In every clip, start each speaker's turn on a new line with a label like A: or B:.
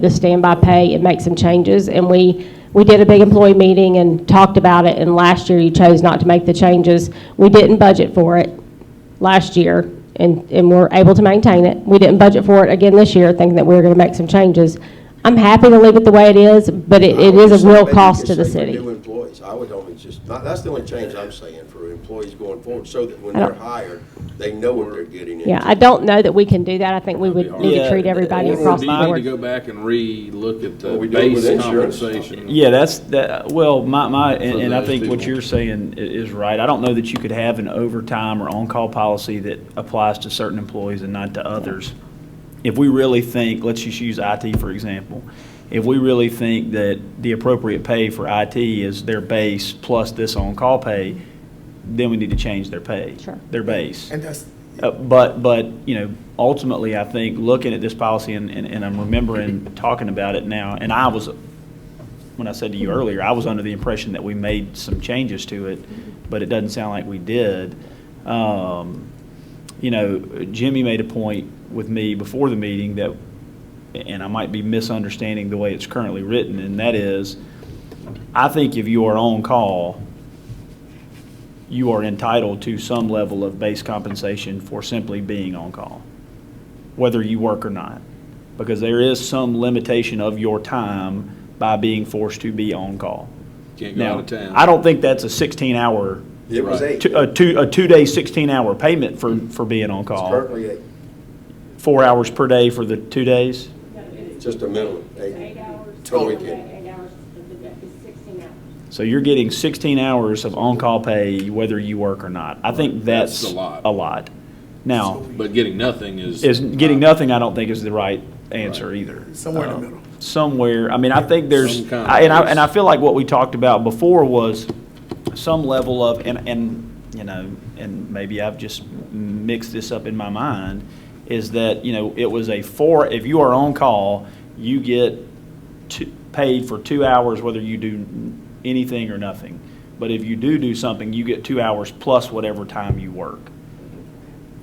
A: the standby pay and make some changes. And we, we did a big employee meeting and talked about it, and last year you chose not to make the changes. We didn't budget for it last year, and, and we're able to maintain it. We didn't budget for it again this year, thinking that we were going to make some changes. I'm happy to leave it the way it is, but it, it is a real cost to the city.
B: I would just say for new employees, I would only just, not- that's the only change I'm saying for employees going forward, so that when
A: I don't-
B: they're hired, they know what they're getting into.
A: Yeah, I don't know that we can do that. I think we would need to
C: Yeah,
A: treat everybody
C: or- or
A: across
D: do
A: the
D: you need to
A: board.
D: go back and re-look at the
B: Well, we do it with
D: base
B: insurance.
D: compensation?
C: Yeah, that's, that, well, my, my, and and I
D: those
C: think what
D: people.
C: you're saying i- is right. I don't know that you could have an overtime or on-call policy that applies to certain employees and not to others. If we really think, let's just use IT for example, if we really think that the appropriate pay for IT is their base plus this on-call pay, then we need to change their pay.
A: Sure.
C: Their base.
E: And that's,
C: Uh, But, but, you know, ultimately, I think, looking at this policy, and, and and I'm remembering talking about it now, and I was, when I said to you earlier, I was under the impression that we made some changes to it, but it doesn't sound like we did. Um, You know, Jimmy made a point with me before the meeting that, and I might be misunderstanding the way it's currently written, and that is, I think if you are on call, you are entitled to some level of base compensation for simply being on call, whether you work or not. Because there is some limitation of your time by being forced to be on call.
D: Can't go out
C: Now,
D: of town.
C: I don't think that's a 16-hour,
B: It was
D: Right.
B: eight,
C: a two, a two-day 16-hour payment for,
D: Mm-hmm.
C: for being on call.
B: currently eight,
C: Four hours per day for the two days?
B: just a minimum, eight. Total weekend.
C: So you're getting 16 hours of on-call pay whether you work or not. I think
D: That's
C: that's
D: a lot.
C: a lot. Now,
D: But getting nothing is.
C: is getting nothing, I don't think is the right answer either.
E: Somewhere in the
C: Um,
E: middle.
C: Somewhere, I mean, I think there's,
D: Some kind of
C: I- and I,
D: place.
C: and I feel like what we talked about before was some level of, and, and, you know, and maybe I've just mixed this up in my mind, is that, you know, it was a four, if you are on call, you get two, paid for two hours whether you do anything or nothing. But if you do do something, you get two hours plus whatever time you work.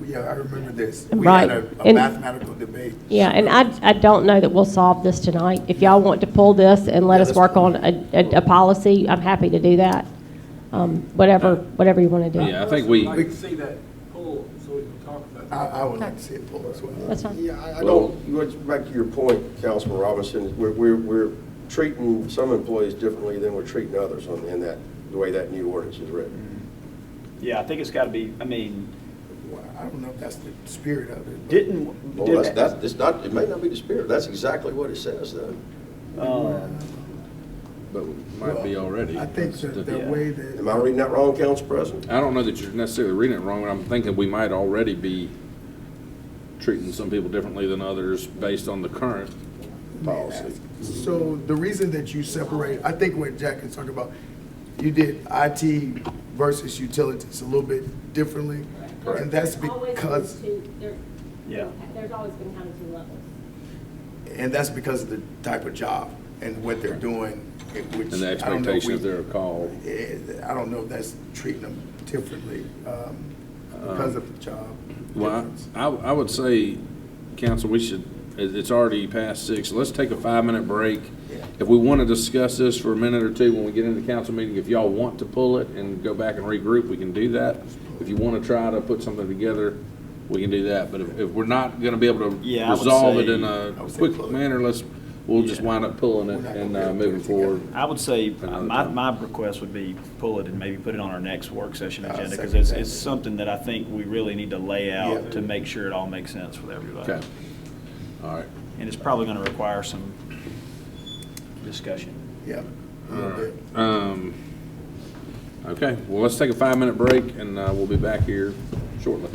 E: yeah, I remember this. We had
A: Right.
E: a a
A: And-
E: mathematical debate.
A: Yeah, and I, I don't know that we'll solve this tonight. If y'all want to pull this and let
B: Yeah,
A: us
B: let's
A: work
B: pull
A: on a, a, a policy, I'm happy to do that. Um, whatever, whatever you want to do.
D: Yeah, I think we,
F: I'd like to see that poll so we can talk about it.
E: I, I would like to see it pulled as well.
A: That's fine.
B: Yeah, I- I don't, you went back to your point, Councilman Robinson, we're, we're, we're treating some employees differently than we're treating others on, in that, the way that new ordinance is written.
C: Yeah, I think it's gotta be, I mean,
E: Well, I don't know if that's the spirit of it. but-
C: didn't,
B: Well, that's, that's, it's not, it may not be the spirit, that's exactly what it says though.
C: Um,
D: but we might be already.
E: I think that the
C: yeah.
E: way that.
B: Am I reading that wrong, Council President?
D: I don't know that you're necessarily reading it wrong, but I'm thinking we might already be treating some people differently than others based on the current policy.
E: So the reason that you separate, I think what Jack is talking about, you did IT versus utilities a little bit differently. And that's because,
C: Yeah.
A: There's always been kind of two levels.
E: and that's because of the type of job and what they're doing, eh, which.
D: And the
E: I don't know if
D: expectation
E: we-
D: of their call.
E: eh, I don't know if that's treating them differently um, because of the job.
D: Well,
E: difference.
D: I, I would say, council, we should, it- it's already past six, let's take a five-minute break. If we want to discuss this for a minute or two when we get into council meeting, if y'all want to pull it and go back and regroup, we can do that. If you want to try to put something together, we can do that, but if, if we're not going to be able to
C: Yeah, I would
D: resolve it
C: say-
D: in a
E: I would say
D: quick
E: pull it.
D: manner, let's, we'll just
C: Yeah.
D: wind up pulling
E: We're
D: it
E: not
D: and
E: gonna be
D: uh,
E: able to
D: moving
E: put it together.
D: forward.
C: I would say, uh,
D: Another
C: my,
D: time.
C: my request would be pull it and maybe put it on our next work session
E: I'll
C: agenda, because
E: second
C: it's,
E: that.
C: it's something that I think we really need to lay
E: Yeah.
C: out to make sure it all makes sense with everybody.
D: Okay, all right.
C: And it's probably gonna require some discussion.
E: Yeah, a little bit.
D: Um, okay, well, let's take a five-minute break, and uh, we'll be back here shortly.